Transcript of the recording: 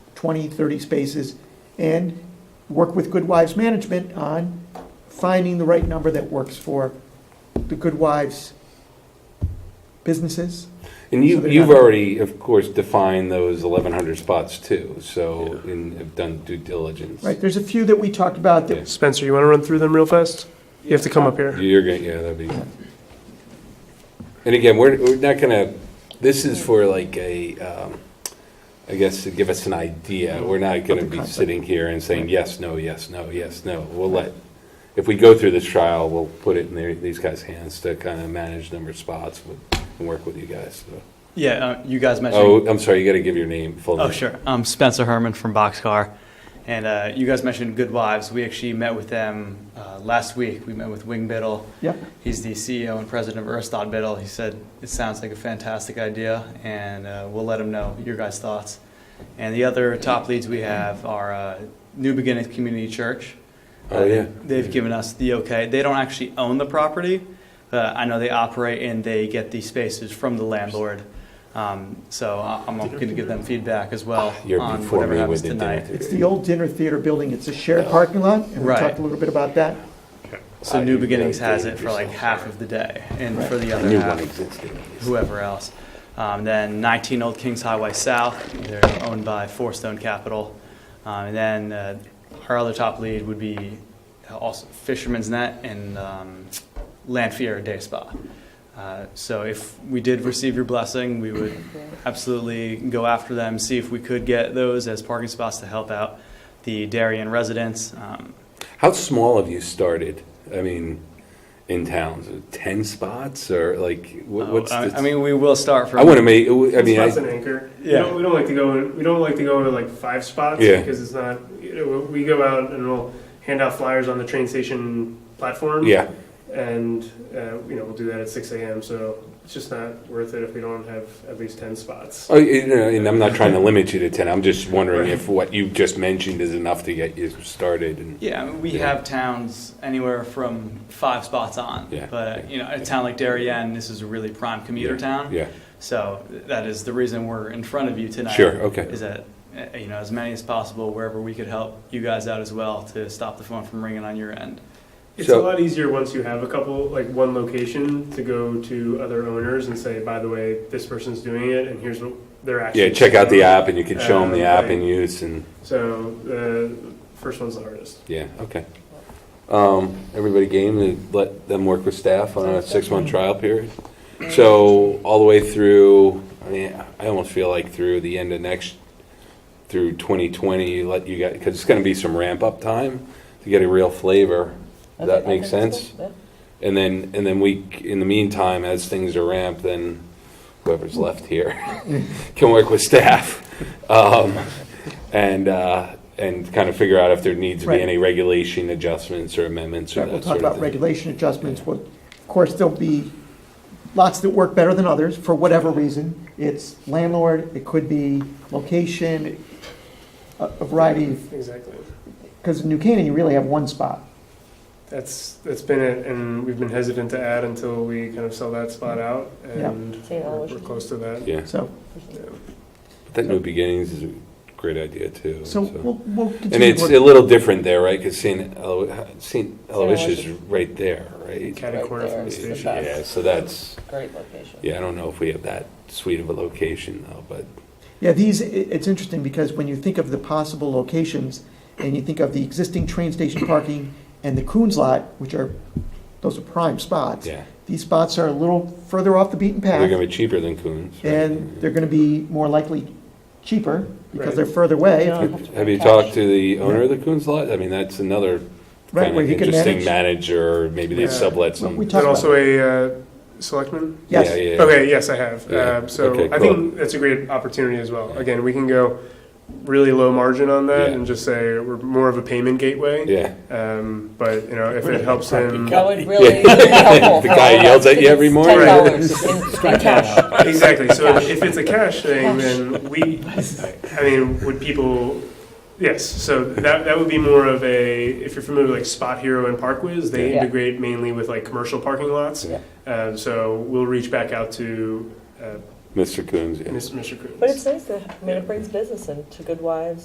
20, 30 spaces, and work with Good Wives Management on finding the right number that works for the Good Wives businesses. And So you, they're you've not- already, of course, defined those eleven hundred spots too, so, and have done due diligence. Right, there's a few that we talked about that Spencer, you want to run through them real fast? You have to come up here. You're gonna, yeah, that'd be. And again, we're, we're not gonna, this is for like a, um, I guess to give us an idea. We're not gonna be Mm-hmm. concept. sitting here and saying, yes, no, yes, no, yes, no. We'll let, if we go through this trial, we'll put it in their, these guys' hands to kind of manage number of spots with- and work with you guys. so. Yeah, uh, you guys mentioned. Oh, I'm sorry, you gotta give your name, full name. Oh, sure. I'm Spencer Herman from Boxcar. And uh, you guys mentioned Good Wives. We actually met with them uh, last week. We met with Wing Biddle. Yep. He's the CEO and president of Aristotle Biddle. He said, It sounds like a fantastic idea, and uh, we'll let him know your guys' thoughts. And the other top leads we have are uh, New Beginnings Community Church. Uh, Oh, yeah. They've given us the okay. They don't actually own the property. Uh, I know they operate and they get the spaces from the landlord. Um, so I- I'm going to give them feedback as well You're on before whatever me happens with the tonight. dinner. It's the old dinner theater building, it's a shared Oh. parking lot, and we Right. talked a little bit about that. So Uh, New you've Beginnings got to has date it for like yourself. half of the day, and for the I other knew one half, existed. whoever else. Um, then 19 Old Kings Highway South, they're owned by Four Stone Capital. Um, and then uh, our other top lead would be uh, also Fisherman's Net and um, Lanfear Day Spa. Uh, so if we did receive your blessing, we would absolutely go after them, see if we could get those as parking spots to help out the Darien residents. Um, How small have you started? I mean, in towns, ten spots or like what, what's? uh, I, the, I mean, we will start from. I want to make. I mean, Spots I, an anchor. We Yeah. don't, we don't like to go. In, we don't like to go to like five spots Yeah. because it's not. You know, we go out and we'll hand out flyers on the train station platform. yeah, And uh, you know we'll do that at six a.m. So it's just not worth it if we don't have at least ten spots. oh, you know, and I'm not trying to limit you to ten. I'm just wondering if what you just mentioned is enough to get you started. And Yeah, I mean, we Yeah. have towns anywhere from five spots on. Yeah, But, yeah, you know, a yeah. town like Darien, this is a really prime commuter Yeah, town. yeah, So that is the reason we're in front of you tonight. Sure, okay. Is that, uh, you know, as many as possible, wherever we could help you guys out as well to stop the phone from ringing on your end. It's So- a lot easier once you have a couple, like one location, to go to other owners and say, by the way, this person's doing it, and here's what they're actually. yeah. Check out the app, and you can show them the Um, app right. in use. And So the first one's the hardest. yeah, okay. Um, everybody game to let them work with staff on a six month trial period. So all the way through, I mean, I almost feel like through the end of next, through 2020, you let you guys, because it's going to be some ramp up time to get a real flavor. Does that make sense? And then, and then we, c- in the meantime, as things are ramped, then whoever's left here can work with staff. um, And, uh, and kind of figure out if there needs to be Right. any regulation adjustments or amendments or Right, We'll that talk sort of about thing. regulation adjustments, Well, of course, there'll be lots that work better than others, for whatever reason. It's landlord, it could be location, a a variety, Exactly. because in New Canaan, you really have one spot. That's, that's been it, and we've been hesitant to add until we kind of sell that Mm-hmm. spot out, and Say it all, we're what we're you close to that. Yeah, So, that New Beginnings is a great idea too. so we'll, we'll continue. And it's to a work- little different there, right? Because St. Elo- St. Aloysius is right there, right? Cat and corner from the Right there. station. Yeah, so that's, Great location. yeah, I don't know if we have that sweet of a location though, but Yeah, these, i- it's interesting, because when you think of the possible locations, and you think of the existing train station parking and the Coons lot, which are, those are prime spots. yeah. These spots are a little further off the beaten path. They're gonna be cheaper than Coons. right? and they're going to be more likely cheaper because Right. they're further away. Yeah. Have have you talked to the owner of the Coons lot? I mean, that's another Right, kind where of he could interesting manage. manager, maybe they Yeah. sublet Well, some. we Is talked that about also a uh, selectman? Yes. Yeah, yeah, yeah. Okay, yes, I have. Yeah. Um, So Okay, I cool. think that's a great opportunity as well. Again, we can go really low margin on that Yeah. and just say we're more of a payment gateway. Yeah. Um, But, you know, if it helps them. That would really be The helpful. for guy all yells of us. at you every It's morning. Ten dollars in in cash. Exactly. So if it's a cash thing, then we, I mean, would people, yes. So that, that would be more of a, if you're familiar with like Spot Hero and Park Whiz, they Yeah. integrate mainly with like commercial parking lots. Yeah. Um, so we'll reach back out to uh, Mr. Coons, yeah. Mr. Coons. But it's nice that, I mean, it brings business into Good Wives